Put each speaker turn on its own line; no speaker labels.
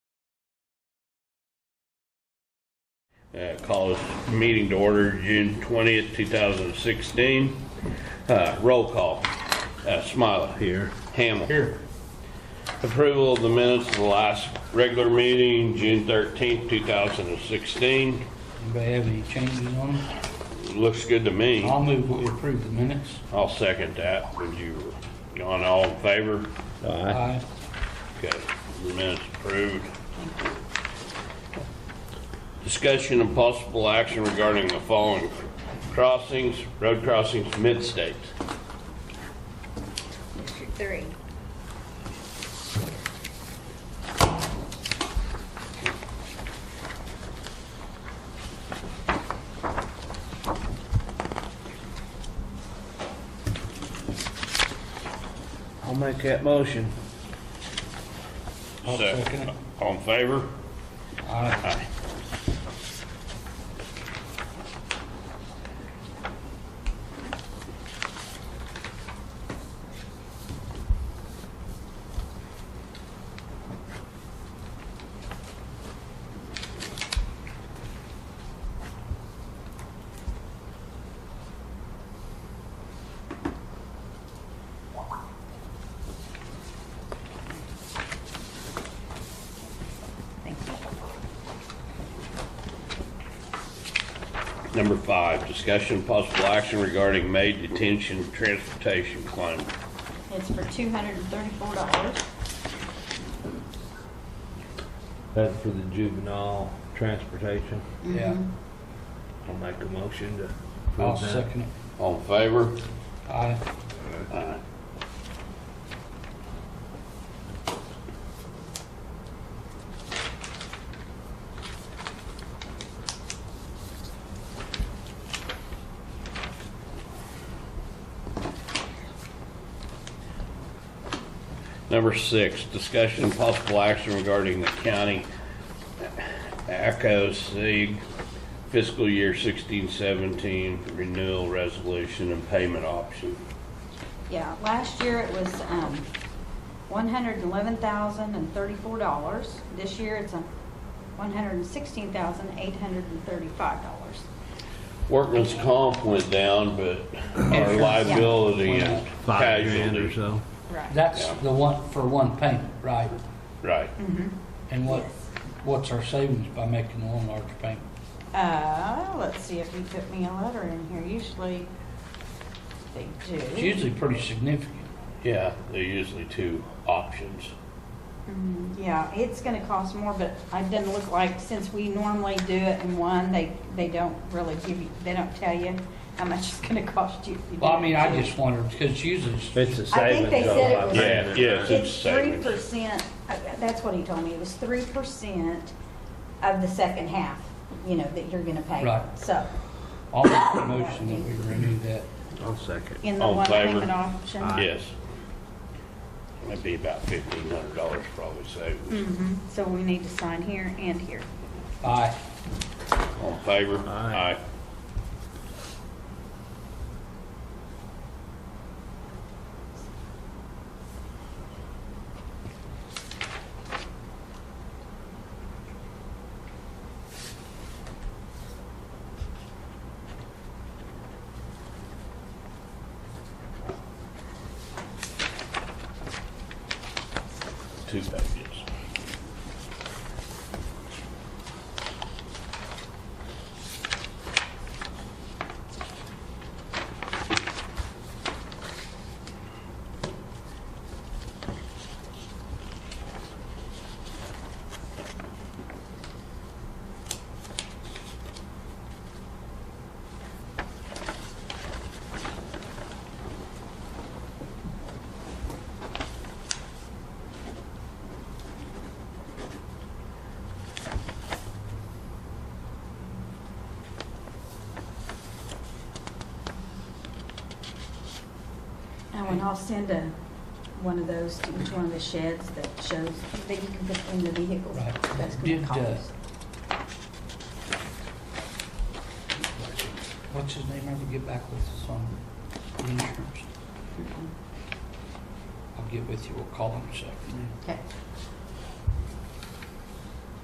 Uh, Call this meeting to order June 20th, 2016. Uh, Roll call. Uh, Smiley. Here. Hamel. Here. Approval of the minutes of the last regular meeting, June 13th, 2016.
Anybody have any changes on them?
Looks good to me.
I'll move what we approve the minutes.
I'll second that. Would you, on all in favor?
Aye.
Okay, the minutes approved. Discussion and possible action regarding the following crossings, road crossings mid-state.
District three.
I'll make that motion.
I'll
So,
second it.
All in favor?
Aye.
Thank you.
Number five, discussion and possible action regarding May detention transportation claim.
It's for two hundred and thirty-four dollars.
That's for the juvenile transportation.
Yeah,
Mm-hmm.
I'll make a motion to
I'll
approve that.
second it.
All in favor?
Aye.
Number six, discussion and possible action regarding the county ACO SIG fiscal year sixteen seventeen renewal resolution and payment option.
Yeah, last year it was, um, one hundred and eleven thousand and thirty-four dollars. This year it's a one hundred and sixteen thousand, eight hundred and thirty-five dollars.
Workman's comp went down, but our
Insurance.
liability
Yeah.
and
Five grand or
casualty.
so.
Right.
That's
Yeah.
the one, for one payment, right?
Right.
And what,
Yes.
what's our savings by making one larger payment?
Uh, let's see if you put me a letter in here. Usually they
It's
do.
usually pretty significant.
Yeah, they're usually two options.
Mm, Yeah, it's gonna cost more, but I didn't look like, since we normally do it in one, they, they don't really give you, they don't tell you how much it's gonna cost you. if you do
Well, I
it
mean,
two.
I just wondered, because usually, it's-
It's a
I think
savings.
they said it
of
was-
about
Yeah, yes, it's
It's three
savings.
percent, uh, that's what he told me, it was three percent of the second half, you know, that you're gonna pay.
Right.
So,
I'll make the motion that we renew that.
I'll second.
in the
All in
one
favor?
payment option.
Aye.
Yes. That'd be about fifteen hundred dollars probably saved.
Mhm. So we need to sign here and here.
Aye.
All in favor?
Aye.
Two pages.
Oh, and I'll send a, one of those to each one of the sheds that shows, that you can put in the vehicles.
Right.
That's gonna
Did, uh,
cost.
What's his name, ever get back with us on the
Mm-hmm.
insurance? I'll get with you, we'll call him a second.
Okay.